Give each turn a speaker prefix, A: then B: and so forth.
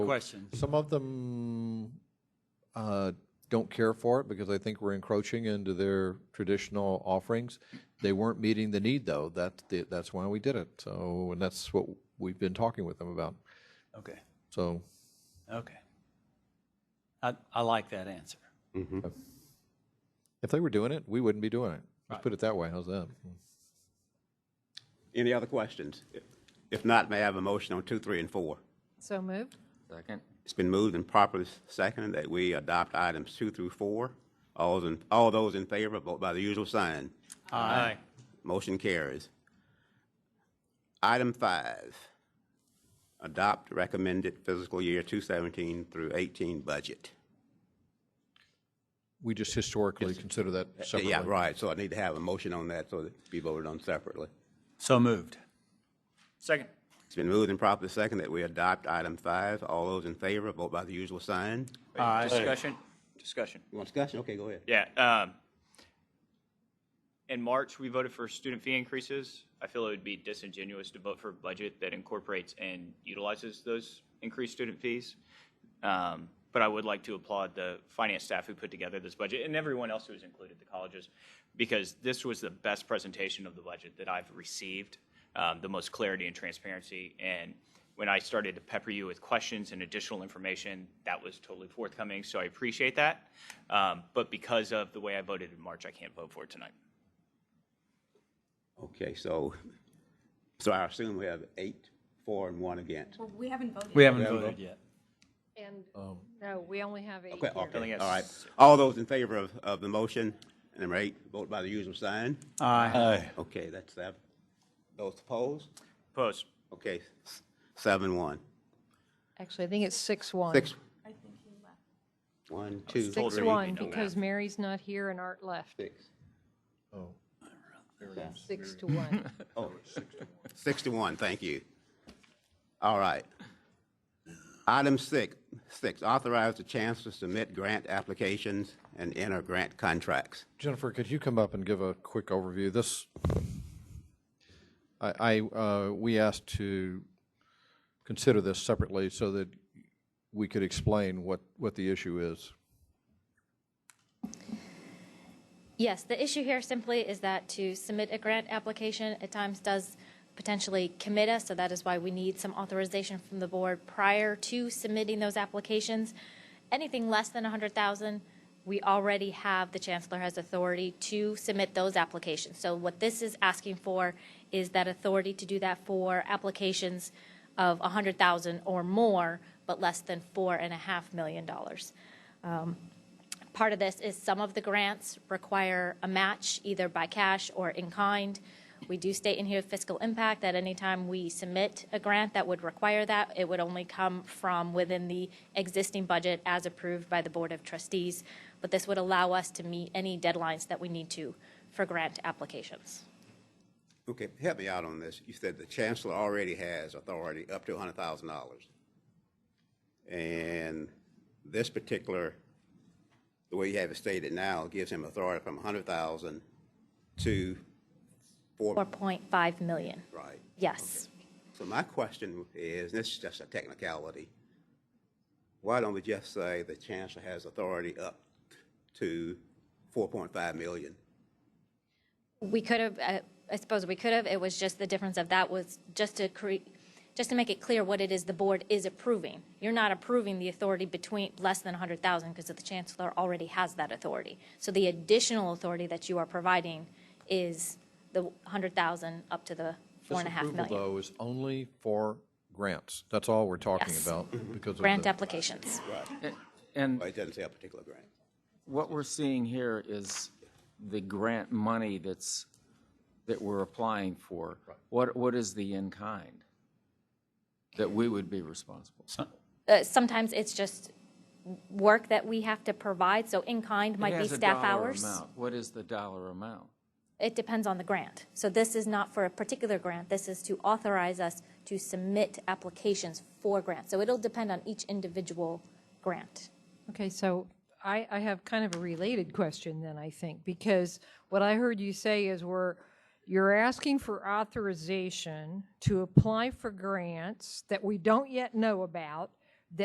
A: Question.
B: Some of them uh, don't care for it because they think we're encroaching into their traditional offerings. They weren't meeting the need, though. That, that's why we did it. So, and that's what we've been talking with them about.
A: Okay,
B: So,
A: okay. I, I like that answer.
B: if they were doing it, we wouldn't be doing it. Let's put it that way. How's that?
C: Any other questions? If not, may I have a motion on two, three, and four?
D: So moved.
E: Second.
C: It's been moved and properly seconded that we adopt items two through four. All those, in- all those in favor, vote by the usual sign.
A: Aye.
C: Motion carries. Item five, adopt recommended fiscal year 217 through 18 budget.
B: We just historically consider that separately.
C: Yeah, right, so I need to have a motion on that so that it be voted on separately.
A: So moved.
E: Second.
C: It's been moved and properly seconded that we adopt item five. All those in favor, vote by the usual sign.
E: Discussion, discussion.
C: You want discussion? Okay, go ahead.
E: Yeah, um, in March, we voted for student fee increases. I feel it would be disingenuous to vote for a budget that incorporates and utilizes those increased student fees. Um, but I would like to applaud the finance staff who put together this budget and everyone else who was included, the colleges, because this was the best presentation of the budget that I've received, um, the most clarity and transparency. And when I started to pepper you with questions and additional information, that was totally forthcoming. So I appreciate that. Um, but because of the way I voted in March, I can't vote for it tonight.
C: Okay, so, so I assume we have eight, four, and one against.
F: Well, we haven't voted.
A: We haven't
C: Yeah,
A: voted yet.
D: And, no, we only have eight
C: Um, Okay,
D: here.
C: okay,
E: yes.
C: all right. All those in favor of, of the motion, number eight, vote by the usual sign.
A: Aye.
C: Okay, that's seven. Those opposed?
E: Opposed?
C: Okay, s- seven, one.
D: Actually, I think it's six one.
C: Six. One, two,
D: Six
C: three,
D: one,
E: don't
D: because Mary's not here and Art left.
C: six.
D: Six to one.
C: Six to one, thank you. All right. Item six, six, authorize the chancellor to submit grant applications and enter grant contracts.
B: Jennifer, could you come up and give a quick overview? This, I, I, uh, we asked to consider this separately so that we could explain what, what the issue is.
G: Yes, the issue here simply is that to submit a grant application at times does potentially commit us, so that is why we need some authorization from the board prior to submitting those applications. Anything less than 100,000, we already have, the chancellor has authority to submit those applications. So what this is asking for is that authority to do that for applications of 100,000 or more, but less than $4.5 million. dollars part of this is some of the grants require a match either by cash or in kind. We do state in here fiscal impact that anytime we submit a grant that would require that, it would only come from within the existing budget as approved by the Board of Trustees. But this would allow us to meet any deadlines that we need to for grant applications.
C: Okay, help me out on this. You said the chancellor already has authority up to hundred thousand dollars. And this particular, the way you have it stated now, gives him authority from a hundred thousand to four,
G: 4.5 million.
C: right?
G: Yes.
C: So my question is, and this is just a technicality, why don't we just say the chancellor has authority up to four point five million?
G: We could have, uh, I suppose we could have, it was just the difference of that was just to create, just to make it clear what it is the board is approving. You're not approving the authority between less than 100,000 because the chancellor already has that authority. So the additional authority that you are providing is the 100,000 up to the four and a half
B: This approval,
G: million.
B: though, is only for grants. That's all we're talking
G: Yes. Mm-hmm.
B: about because of
G: Grant
B: the-
G: applications.
C: Well,
H: And
C: it doesn't say a particular grant.
H: what we're seeing here is the grant money that's, that we're applying for. What, what is the in-kind that we would be responsible?
G: Uh, Sometimes it's just work that we have to provide, so in-kind
H: It
G: might be
H: has a
G: staff
H: dollar
G: hours.
H: amount. What is the dollar amount?
G: It depends on the grant. So this is not for a particular grant, this is to authorize us to submit applications for grants. So it'll depend on each individual grant.
D: Okay, so I, I have kind of a related question then, I think, because what I heard you say is we're, you're asking for authorization to apply for grants that we don't yet know about